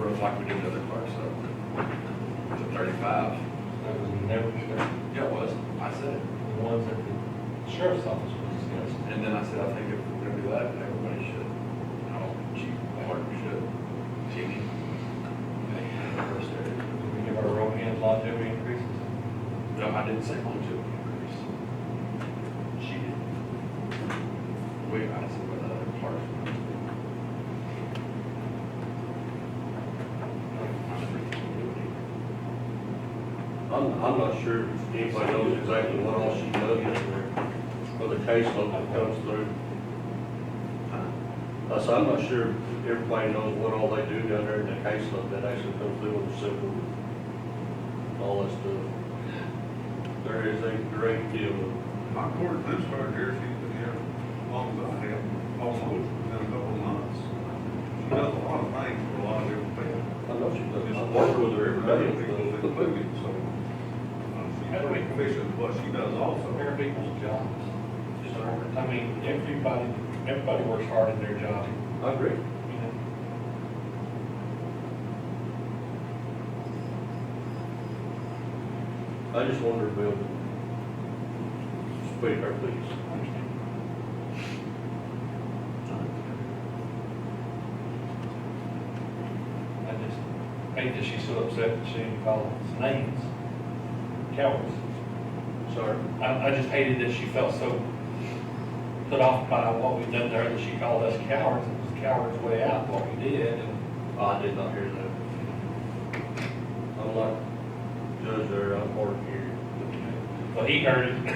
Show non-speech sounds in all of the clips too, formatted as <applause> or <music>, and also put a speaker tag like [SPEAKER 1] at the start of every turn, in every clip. [SPEAKER 1] like we do in other parts, so. Was it thirty-five?
[SPEAKER 2] That was never discussed.
[SPEAKER 1] Yeah, it was. I said it.
[SPEAKER 2] The ones that the sheriff's office was discussing.
[SPEAKER 1] And then I said, I think if we're gonna do that, then everybody should. And all the chief, Mark should, Jimmy.
[SPEAKER 2] We give our road hands longevity increases.
[SPEAKER 1] No, I didn't say one to increase. She did. Wait, I said, what other part?
[SPEAKER 3] I'm, I'm not sure if anybody knows exactly what all she does in there, or the caseload that comes through. I said, I'm not sure if everybody knows what all they do down there in the caseload that actually comes through on the civil, all that stuff. There is a great deal of,
[SPEAKER 4] My court discharge here, she's been here as long as I have, almost within a couple of months. She does a lot of things for a lot of different people.
[SPEAKER 3] I know she does, I work with her every
[SPEAKER 4] People
[SPEAKER 3] day. but-
[SPEAKER 4] included, so. uh, She's pretty efficient, in what she does also.
[SPEAKER 2] Fair people's jobs. Just, I mean, everybody, everybody works hard in their job,
[SPEAKER 3] I agree.
[SPEAKER 2] you know?
[SPEAKER 3] I just wonder if we'll speak her, please.
[SPEAKER 2] I just hate that she's so upset that she didn't call us names, cowards.
[SPEAKER 3] Sorry.
[SPEAKER 2] I, I just hated that she felt so put off by what we'd done to her, that she called us cowards, it was coward's way out, what we did, and
[SPEAKER 3] Oh, I did not hear that. I'm like, judge there, I'm hard of hearing.
[SPEAKER 2] Well, he heard it.
[SPEAKER 4] I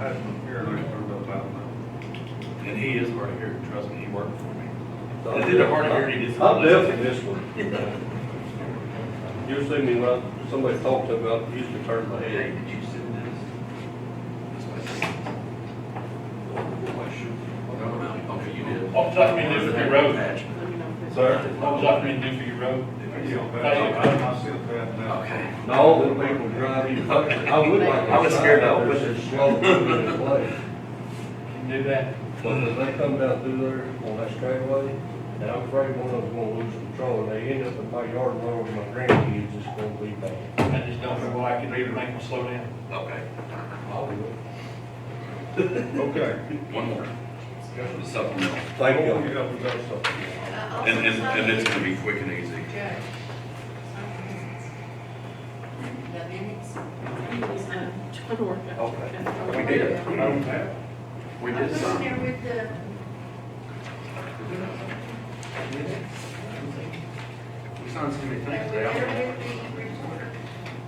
[SPEAKER 4] had some here and I turned up out now.
[SPEAKER 1] And he is right here, trust me, he worked for me.
[SPEAKER 3] So-
[SPEAKER 1] Is it a hard of hearing disorder?
[SPEAKER 3] I'm deaf in this one. Usually me when I- somebody talked to me, I usually turn my
[SPEAKER 1] Hey,
[SPEAKER 3] head.
[SPEAKER 1] did you send this? This way. No, no, okay, you did.
[SPEAKER 2] What was that mean if you wrote?
[SPEAKER 3] Sir?
[SPEAKER 2] What was that mean do for your road?
[SPEAKER 4] Yeah, I I sent that now.
[SPEAKER 1] Okay.
[SPEAKER 3] No, the people driving, I would like. to
[SPEAKER 1] I was scared to
[SPEAKER 3] drive,
[SPEAKER 1] open
[SPEAKER 3] there's
[SPEAKER 1] it.
[SPEAKER 3] a slow moving place.
[SPEAKER 2] Can do that.
[SPEAKER 3] But as they come down through there on that straightaway, and I'm afraid one of them's gonna lose control, and they end up in my yard, where my grandkids, it's gonna be bad.
[SPEAKER 2] I just don't know why I could even make them slow down.
[SPEAKER 1] Okay,
[SPEAKER 4] Okay.
[SPEAKER 1] one more. The supplemental.
[SPEAKER 3] Thank you.
[SPEAKER 4] Oh, yeah, we got something.
[SPEAKER 1] And, and, and it's gonna be quick and easy.
[SPEAKER 5] Judge. The minutes. He's not trying to work out.
[SPEAKER 1] Okay. We did. We
[SPEAKER 5] I
[SPEAKER 1] did
[SPEAKER 5] was in
[SPEAKER 1] some.
[SPEAKER 5] there with the,
[SPEAKER 1] We signed so many
[SPEAKER 5] I was
[SPEAKER 1] things, man.
[SPEAKER 5] there with the reporter.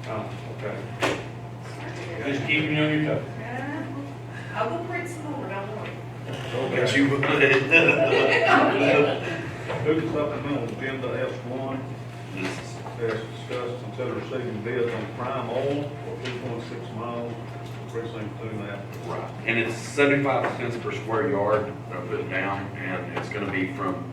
[SPEAKER 1] Oh, okay.
[SPEAKER 2] Just keeping you on your toes.
[SPEAKER 5] I will print some more, don't worry.
[SPEAKER 1] But you,
[SPEAKER 4] Who's supplemental agenda S one?
[SPEAKER 1] <laughs> this
[SPEAKER 4] As discussed, consider receiving bids on prime oil for two point six miles, precinct two and a half.
[SPEAKER 1] Right, and it's seventy-five cents per square yard that I put down, and it's gonna be from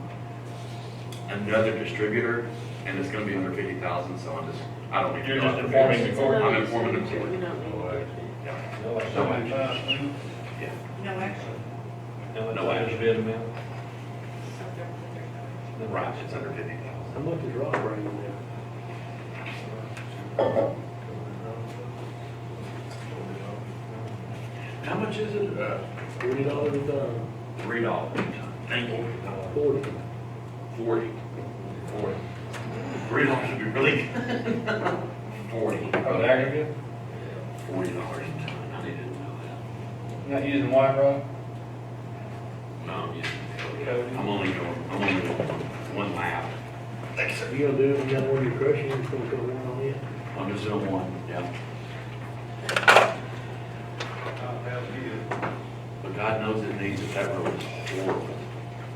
[SPEAKER 1] another distributor, and it's gonna be under fifty thousand, so I'm just, I don't need to.
[SPEAKER 2] You're
[SPEAKER 1] know.
[SPEAKER 2] just informing the court.
[SPEAKER 1] I'm informing the court.
[SPEAKER 5] We don't need to.
[SPEAKER 1] Yeah.
[SPEAKER 2] No
[SPEAKER 4] Seventy-five cents.
[SPEAKER 5] No action.
[SPEAKER 2] No action. Bid amount.
[SPEAKER 5] So there-
[SPEAKER 1] Right, it's under fifty thousand.
[SPEAKER 6] How much is rock running now?
[SPEAKER 1] How much is it? Uh,
[SPEAKER 6] Forty dollars a ton,
[SPEAKER 1] three dollars. Thank you.
[SPEAKER 6] forty.
[SPEAKER 1] Forty. Forty. Three dollars would be really good. Forty.
[SPEAKER 2] Oh, the aggregate?
[SPEAKER 1] Forty dollars a ton, I didn't know
[SPEAKER 2] Not using white rock?
[SPEAKER 1] that. No, I'm using, I'm only going, I'm only going one lap. Thanks, sir.
[SPEAKER 6] You gonna do it, you got one you're crushing, it's gonna come around on you.
[SPEAKER 1] I'm just doing one, yeah.
[SPEAKER 4] I have here,
[SPEAKER 1] But God knows it needs it, that road is horrible.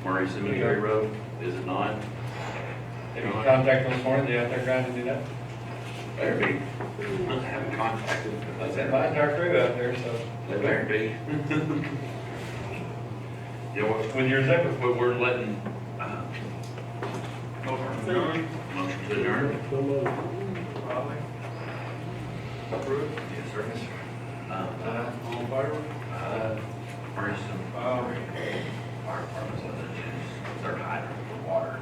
[SPEAKER 1] Murray Cemetery Road, is it not?
[SPEAKER 2] Have you contacted this morning? They out there grinding it up?
[SPEAKER 1] There be. I haven't contacted.
[SPEAKER 2] I said, my entire crew out there, so.
[SPEAKER 1] They better be. <laughs> Yeah, well,
[SPEAKER 2] With yours ever.
[SPEAKER 1] but we're letting, uh,
[SPEAKER 4] motion to adjourn,
[SPEAKER 1] motion to adjourn.
[SPEAKER 6] So much.
[SPEAKER 4] Raleigh. Approved.
[SPEAKER 1] Yes, sir. Uh,
[SPEAKER 4] Aye. All in favor?
[SPEAKER 1] uh, Murray Cemetery.
[SPEAKER 4] Aye.
[SPEAKER 1] Fire department's letting it, their hydrant for water.